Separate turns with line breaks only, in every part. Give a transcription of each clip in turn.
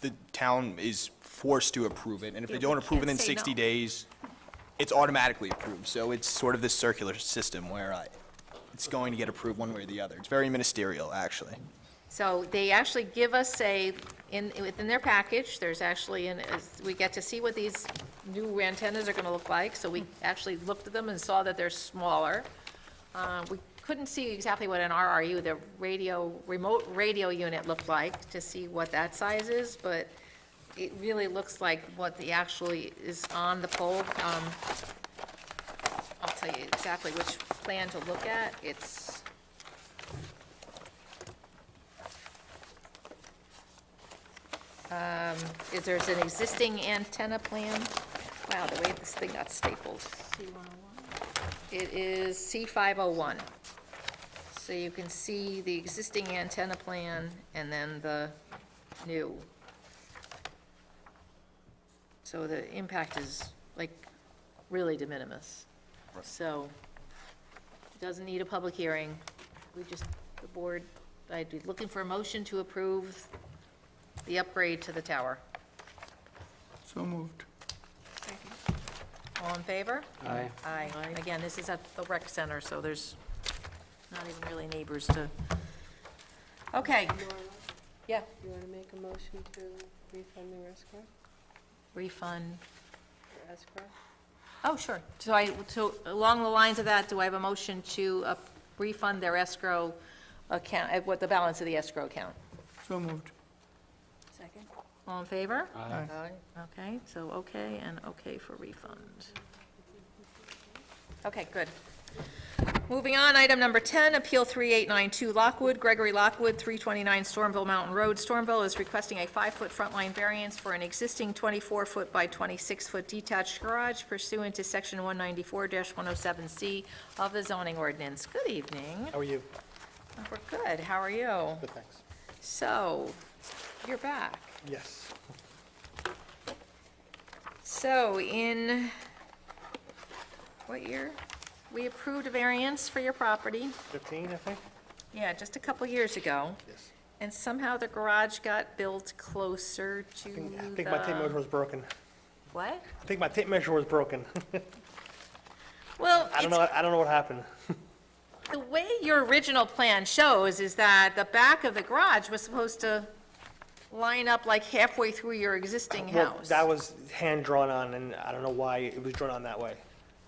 the town is forced to approve it, and if they
Yeah,
don't
we
approve it
can't
in
say
60
no.
days, it's automatically approved. So it's sort of this circular system where uh, it's going to get approved one way or the other. It's very ministerial, actually.
So they actually give us a, in, within their package, there's actually, an as- we get to see what these new antennas are going to look like, so we actually looked at them and saw that they're smaller. Uh, We couldn't see exactly what an RRU, the radio, remote radio unit looked like, to see what that size is, but it really looks like what the actually is on the pole. Um, I'll tell you exactly which plan to look at. It's, is there's an existing antenna plan? Wow, the way this thing got stapled. It is C501. So you can see the existing antenna plan and then the new. So the impact is like really de minimis. So doesn't need a public hearing. We just, the board, I'd be looking for a motion to approve the upgrade to the tower.
So moved.
All in favor?
Aye.
Aye. Again, this is at the rec center, so there's not even really neighbors to, okay. Yeah.
You want to make a motion to refund the escrow,
Refund.
or escrow?
Oh, sure. So I, so along the lines of that, do I have a motion to uh, refund their escrow account, uh, what the balance of the escrow account?
So moved.
Second.
All in favor?
Aye.
Okay, so okay and okay for refund. Okay, good. Moving on, item number 10, Appeal 3892 Lockwood, Gregory Lockwood, 329 Stormville Mountain Road. Stormville is requesting a five-foot front line variance for an existing 24-foot by 26-foot detached garage pursuant to Section 194-107C of the zoning ordinance. Good evening.
How are you?
We're good. How are you?
Good, thanks.
So, you're back.
Yes.
So in, what year? We approved a variance for your property,
15, I think?
yeah, just a couple years ago,
Yes.
and somehow the garage got built closer to
I think- I think my tape measure
the...
was broken.
What?
I think my tape measure was broken.
Well,
I don't
it's
know, I don't know what happened.
The way your original plan shows is that the back of the garage was supposed to line up like halfway through your existing
Well,
house.
That was hand drawn on, and I don't know why it was drawn on that way.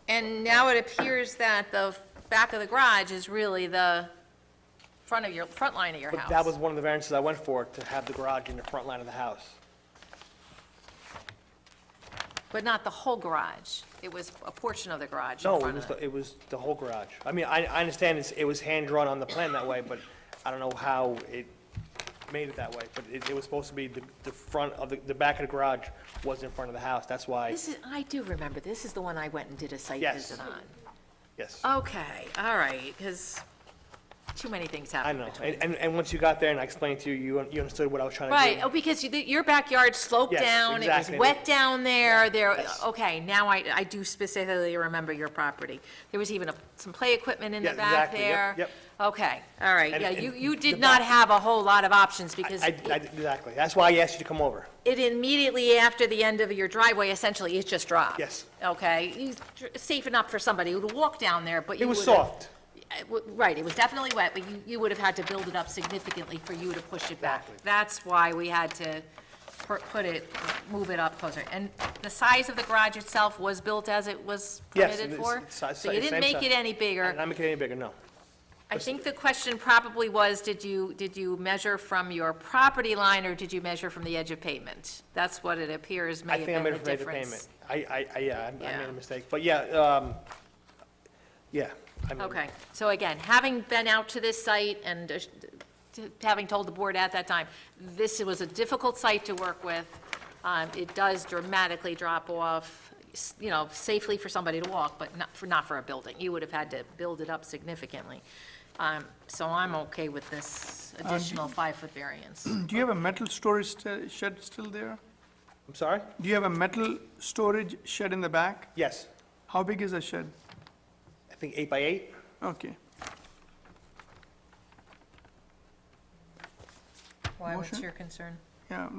And now it appears that the back of the garage is really the front of your, front line of your house.
But that was one of the variances I went for, to have the garage in the front line of the house.
But not the whole garage. It was a portion of the garage in
No, it
front
was,
of
the-
it.
it was the whole garage. I mean, I, I understand it's, it was hand drawn on the plan that way, but I don't know how it made it that way. But it, it was supposed to be the, the front of, the, the back of the garage was in front of the house, that's why,
This is, I do remember, this is the one I went and did a site
Yes.
visit on.
yes.
Okay, all right, because too many things
I
happened
know,
between.
and, and, and once you got there and I explained to you, you, un- you understood what I was trying to do.
Right, oh, because you- your backyard sloped
Yes,
down, it was
exactly.
wet down there, there,
Yes.
okay, now I, I do specifically remember your property. There was even a- some play equipment in the
Yeah,
back
exactly, yep,
there.
yep.
Okay, all right,
And-
yeah, you,
and
you did
the
not
back-
have a whole lot of options because
I, I, exactly, that's why I asked you to come over.
it immediately after the end of your driveway, essentially, it just dropped?
Yes.
Okay, you- safe enough for somebody who'd walk down there, but
It
you
was
would've-
soft,
Uh, w- Right, it was definitely wet, but you, you would have had to build it up significantly for you to push it back.
Exactly.
That's why we had to per- put it, move it up closer. And the size of the garage itself was built as it was
Yes,
permitted
it is.
for?
It's si-
So you didn't
si- same
make
size.
it any
and
bigger.
I'm making it any bigger, no.
I think the question probably was, did you, did you measure from your property line or did you measure from the edge of pavement? That's what it appears may
I
have
think I
been the
made it for
difference.
major payment. I, I, I, yeah, I- I
Yeah.
made a mistake, but yeah, um, yeah. I mean,
Okay, so again, having been out to this site and uh, t- having told the board at that time, this was a difficult site to work with. Um, It does dramatically drop off, s- you know, safely for somebody to walk, but not for, not for a building. You would have had to build it up significantly. Um, So I'm okay with this additional five-foot variance.
Do you have a metal storage st- shed still there?
I'm sorry?
Do you have a metal storage shed in the back?
Yes,
How big is the shed?
I think eight by eight.
Okay.
Why,
what's
what's
Motion?
your concern?
Yeah,